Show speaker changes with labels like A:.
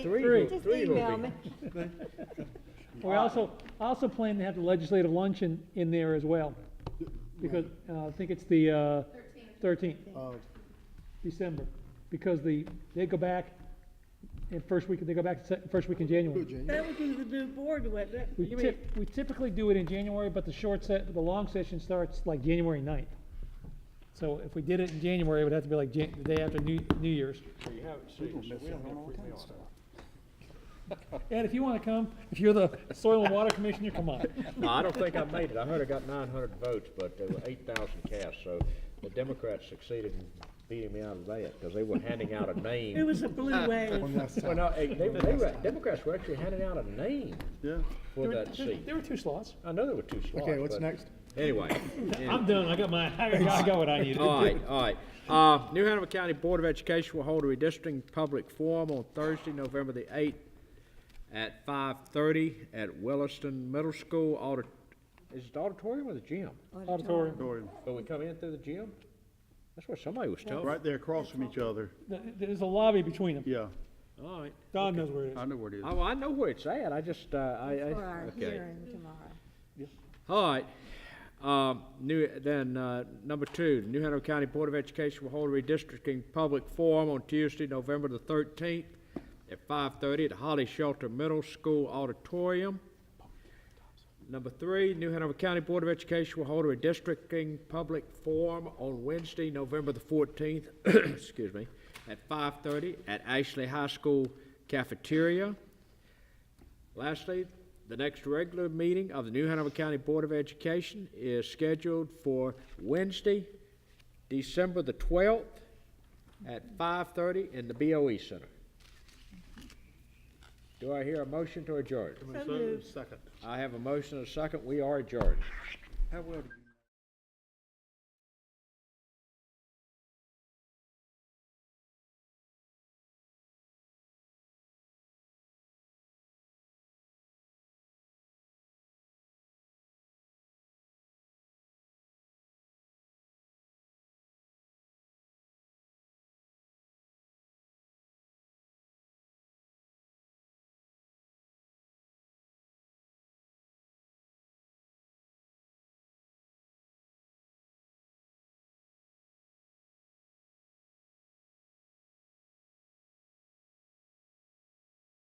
A: Three,
B: Three.
A: will-
C: Just
A: three will
C: email
A: be.
C: me.
B: We
A: Uh,
B: also, I also plan to have the legislative luncheon in there as well, because, uh, I think it's the, uh, thirteenth,
A: Uh,
B: December, because the, they go back, in first week, they go back se- first week in
A: good,
B: January.
A: January.
D: That would be the new board, wouldn't it?
B: We
D: You mean-
B: typ- we typically do it in January, but the short set, the long session starts like January 9th. So if we did it in January, it would have to be like Jan, the day after New, New Year's.
E: So you have, so you- so we don't have free meal.
B: Ed, if you wanna come, if you're the Soil and Water Commissioner, come on.
E: No, I don't think I made it. I heard I got nine hundred votes, but there were eight thousand cast, so the Democrats succeeded in beating me out of that, because they were handing out a name.
D: It was a blue
A: One
D: wave.
A: last
E: Well,
A: time.
E: no, eh, they, they were, Democrats were actually handing out a name
A: Yeah.
E: for that seat.
B: There were two slots.
E: I know there were two slots.
A: Okay, what's
E: but-
A: next?
E: Anyway,
B: I'm done, I got my, I got- I got what I needed.
E: all right, all right. Uh, New Hanover County Board of Education will hold a redistricting public forum on Thursday, November the eighth at five thirty at Williston Middle School audit, is it the auditorium or the gym?
B: Auditorium.
F: Auditorium,
E: But we come in through the gym? That's what somebody was telling me.
F: right there across from each other,
B: Th- There's a lobby between them.
F: yeah,
E: All right.
B: Don knows where it
F: I
B: is.
F: know where it is.
E: Oh, I know where it's at. I just, uh, I, I.
C: For our
E: okay.
C: hearing tomorrow.
E: All right. Um, new, then, uh, number two, New Hanover County Board of Education will hold a redistricting public forum on Tuesday, November the thirteenth at five thirty at Holly Shelter Middle School Auditorium. Number three, New Hanover County Board of Education will hold a redistricting public forum on Wednesday, November the fourteenth, excuse me, at five thirty at Ashley High School cafeteria. Lastly, the next regular meeting of the New Hanover County Board of Education is scheduled for Wednesday, December the twelfth, at five-thirty in the BOE Center. Do I hear a motion to adjourn?
D: So moved.
F: Second.
E: I have a motion and a second. We are adjourned.
F: How well do you?